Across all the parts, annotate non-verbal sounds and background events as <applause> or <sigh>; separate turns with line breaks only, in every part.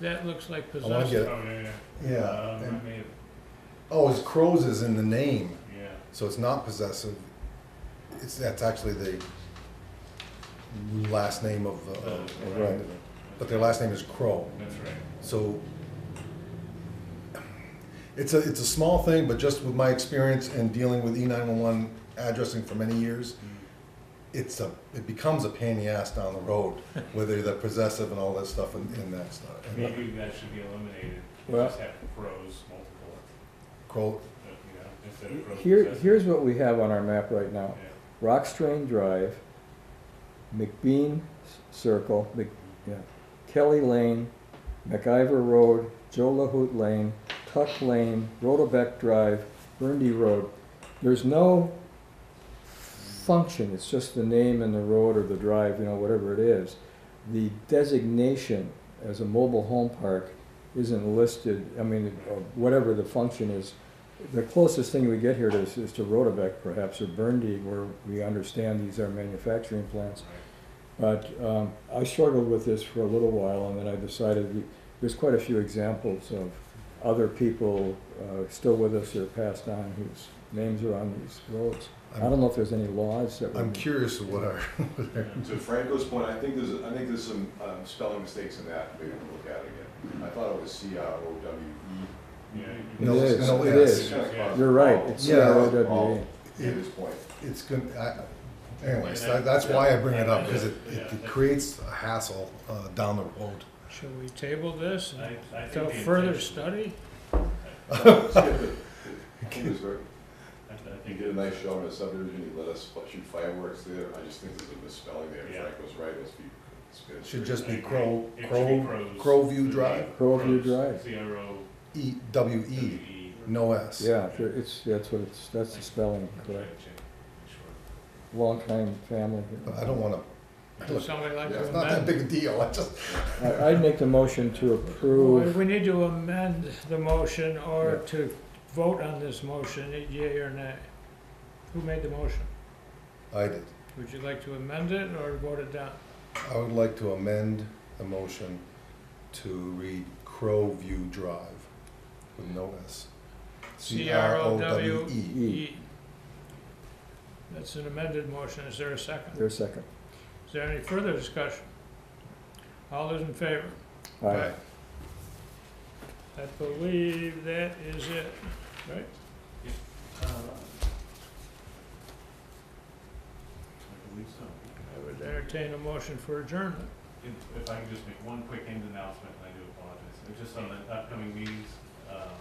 That looks like
I wanna
possessed.
get,
Oh, yeah,
yeah.
Um, I
and-
may have,
Oh, it's crows is in the name,
yeah.
so it's not possessive. It's, that's actually the last name of the, of
Uh,
the
right.
but their last name is Crow.
That's right.
So it's a, it's a small thing, but just with my experience in dealing with E E911 addressing for many years, it's a, it becomes a pain in the ass down
<laughs>
the road, whether they're possessive and all that stuff and, and that stuff. And
Maybe that should be eliminated.
Well-
Just have crows multiple,
Crow,
uh, you know, instead of crows.
Here,
possessing.
here's what we have on our map right
Yeah,
now. Rock Strain Drive, McBean Circle, Mc, yeah, Kelly Lane, McIver Road, Joe LaHoot Lane, Tuck Lane, Rotobeck Drive, Burndy Road. There's no function, it's just the name and the road or the drive, you know, whatever it is. The designation as a mobile home park isn't listed, I mean, or whatever the function is the closest thing we get here to is, is to Rotabeck perhaps, or Burndy, where we understand these are manufacturing plants. But, um, I struggled with this for a little while, and then I decided, we- there's quite a few examples of other people, uh, still with us or passed on whose names are on these roads. I
I'm-
don't know if there's any laws that
I'm
would,
curious of what our,
To Franco's point, I think there's, I think there's some um, spelling mistakes in that, maybe we'll look at it again. I thought it was C R O W E.
<laughs>
yeah.
No,
It
it's
is,
no
it
S.
is. You're right, it's
Yeah. Oh.
CROWA.
At this point.
it's good, I, anyways, that- that's why I bring it up, because it, it creates a hassle, uh, down the road.
Shall we table this
I, I think.
until
the
further
intention-
study?
Skip it. I think it was very-
I I
He
think
did a
it
nice show in a subdivision, he let us shoot fireworks there, I just think there's a misspelling there,
Yeah.
Franco's right, it's be, it's good.
It should just
I
be
agree.
Crow,
It should be
Crow,
crows.
Crowview Drive,
Crowview
Crows,
Drive.
C R O
E, W
W
E,
E.
no S.
Yeah, there- it's, that's what it's, that's the spelling,
That's
correct.
right, Jim.
Longtime family here.
But I don't wanna,
Does somebody like
Yeah,
to
it's not that
amend?
big a deal, I just,
I- I'd make the motion to
Well,
approve,
We need to amend the motion or to vote on this motion, yea or nay. Who made the motion?
I did.
Would you like to amend it or vote it down?
I would like to amend the motion to read Crowview Drive with no S.
C R O W
C-R-O-W-E.
E. That's an amended motion. Is there a second?
there's a second.
Is there any further discussion? All those in favor?
All right.
Right.
I believe that is it.
Uh, I believe so.
Entertain a motion for adjournment.
If, if I can just make one quick end announcement, and I do apologize, It's just on the upcoming meetings, um,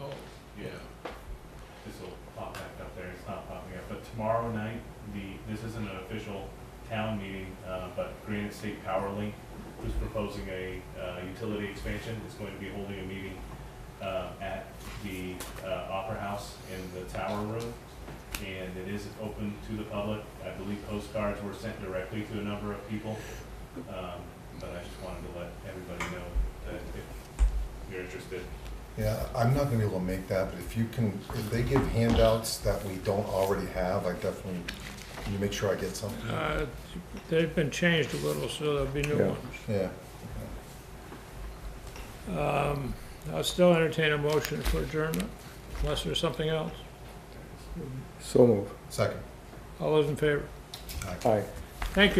Oh.
yeah. This will pop back up there, it's not popping up, but tomorrow night, the, this isn't an official town meeting, uh, but Granite State Power Link who's proposing a, uh, utility expansion, is going to be holding a meeting, uh, at the, uh, Opera House in the Tower Room. And it is open to the public, I believe postcards were sent directly to a number of people. Um, but I just wanted to let everybody know that if you're interested,
Yeah, I'm not gonna be able to make that, but if you can, if they give handouts that we don't already have, I definitely, can you make sure I get something?
Uh, They've been changed a little, so there'll be new
Yeah.
ones.
Yeah.
Um, I'll still entertain a motion for adjournment, unless there's something else.
So move.
Second.
All those in favor?
Aye.
Thank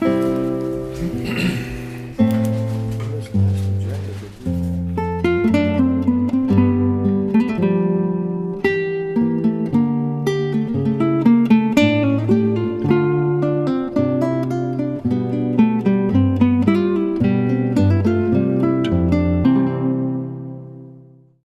you.